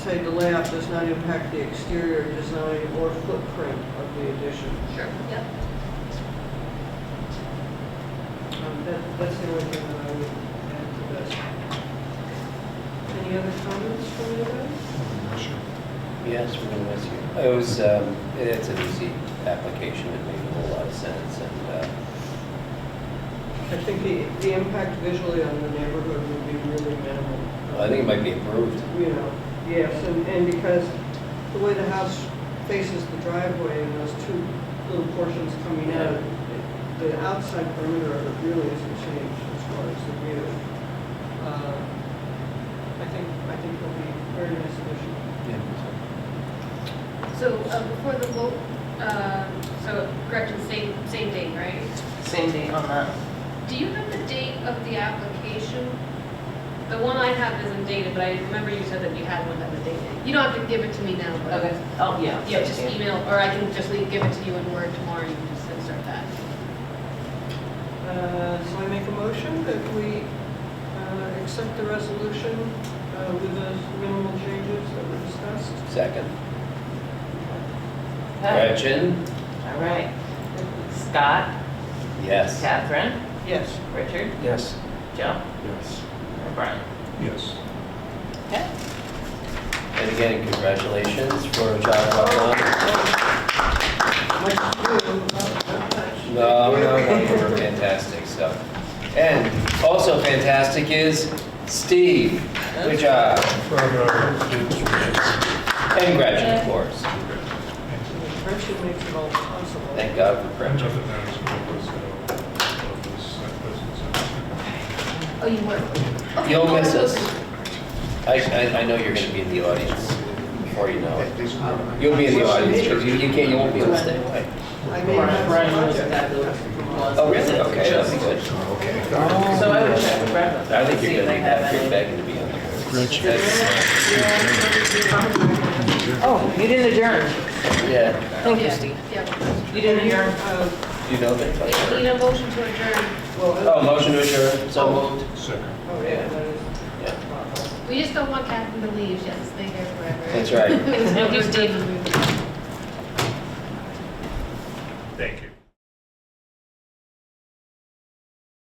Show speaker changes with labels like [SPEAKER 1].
[SPEAKER 1] Say the layout does not impact the exterior design or footprint of the addition.
[SPEAKER 2] Sure.
[SPEAKER 3] Yep.
[SPEAKER 1] Um, that- That's the only thing that I would add to this. Any other comments from you guys?
[SPEAKER 4] Yes, we're gonna miss you. It was, um, it's an easy application, it made a whole lot of sense, and, uh,
[SPEAKER 1] I think the, the impact visually on the neighborhood would be really minimal.
[SPEAKER 4] I think it might be improved.
[SPEAKER 1] You know, yes, and, and because the way the house faces the driveway and those two little portions coming out, it- the outside perimeter of it really isn't changed as far as the view. Uh, I think, I think it'll be a very nice addition.
[SPEAKER 3] So uh, before the vote, uh, so correction, same, same date, right?
[SPEAKER 5] Same date on that.
[SPEAKER 3] Do you have the date of the application? The one I have isn't dated, but I remember you said that you had one that was dated. You don't have to give it to me now, but.
[SPEAKER 5] Oh, yeah.
[SPEAKER 3] Yeah, just email, or I can just leave- give it to you in Word tomorrow, you can just insert that.
[SPEAKER 1] Uh, So I make a motion that we uh, accept the resolution uh, with those minimal changes that were discussed.
[SPEAKER 4] Second.
[SPEAKER 5] Okay.
[SPEAKER 4] Gretchen?
[SPEAKER 5] All right. Scott,
[SPEAKER 4] Yes.
[SPEAKER 5] Catherine,
[SPEAKER 1] Yes.
[SPEAKER 5] Richard,
[SPEAKER 6] Yes.
[SPEAKER 5] Joe,
[SPEAKER 6] Yes.
[SPEAKER 5] and Brian.
[SPEAKER 6] Yes.
[SPEAKER 5] Okay.
[SPEAKER 4] And again, congratulations for John Buckland.
[SPEAKER 1] Much ado, not- not much.
[SPEAKER 4] No, no, no, you were fantastic, so. And also fantastic is Steve. Good job.
[SPEAKER 6] uh,
[SPEAKER 4] And Gretchen, of course.
[SPEAKER 1] Friendship makes it all possible.
[SPEAKER 4] Thank God for Gretchen.
[SPEAKER 6] uh,
[SPEAKER 3] Oh, you were?
[SPEAKER 4] You'll miss us. I, I, I know you're gonna be in the audience before you know it. You'll be in the audience, because you, you can't, you won't be able to stay away.
[SPEAKER 1] I made that
[SPEAKER 5] Brian was
[SPEAKER 1] project.
[SPEAKER 5] fabulous.
[SPEAKER 4] Oh, really? Okay, that'll be good.
[SPEAKER 5] So I would check with Brian.
[SPEAKER 4] I think
[SPEAKER 5] see
[SPEAKER 4] you're
[SPEAKER 5] if
[SPEAKER 4] gonna
[SPEAKER 5] they
[SPEAKER 4] be
[SPEAKER 5] have
[SPEAKER 4] back,
[SPEAKER 5] any-
[SPEAKER 4] you're begging to be on there.
[SPEAKER 5] Oh, you didn't adjourn.
[SPEAKER 4] Yeah,
[SPEAKER 5] Thank you,
[SPEAKER 3] Yeah,
[SPEAKER 5] Steve.
[SPEAKER 3] Yeah.
[SPEAKER 5] You didn't adjourn.
[SPEAKER 1] Uh,
[SPEAKER 4] you know that.
[SPEAKER 3] We need a motion to adjourn.
[SPEAKER 1] Well,
[SPEAKER 4] Oh, motion to adjourn, so moved.
[SPEAKER 6] Second.
[SPEAKER 1] oh, yeah, that is.
[SPEAKER 4] Yeah.
[SPEAKER 3] We just don't want Catherine to leave, she has to stay there forever.
[SPEAKER 4] That's right.
[SPEAKER 3] It's no good Steve.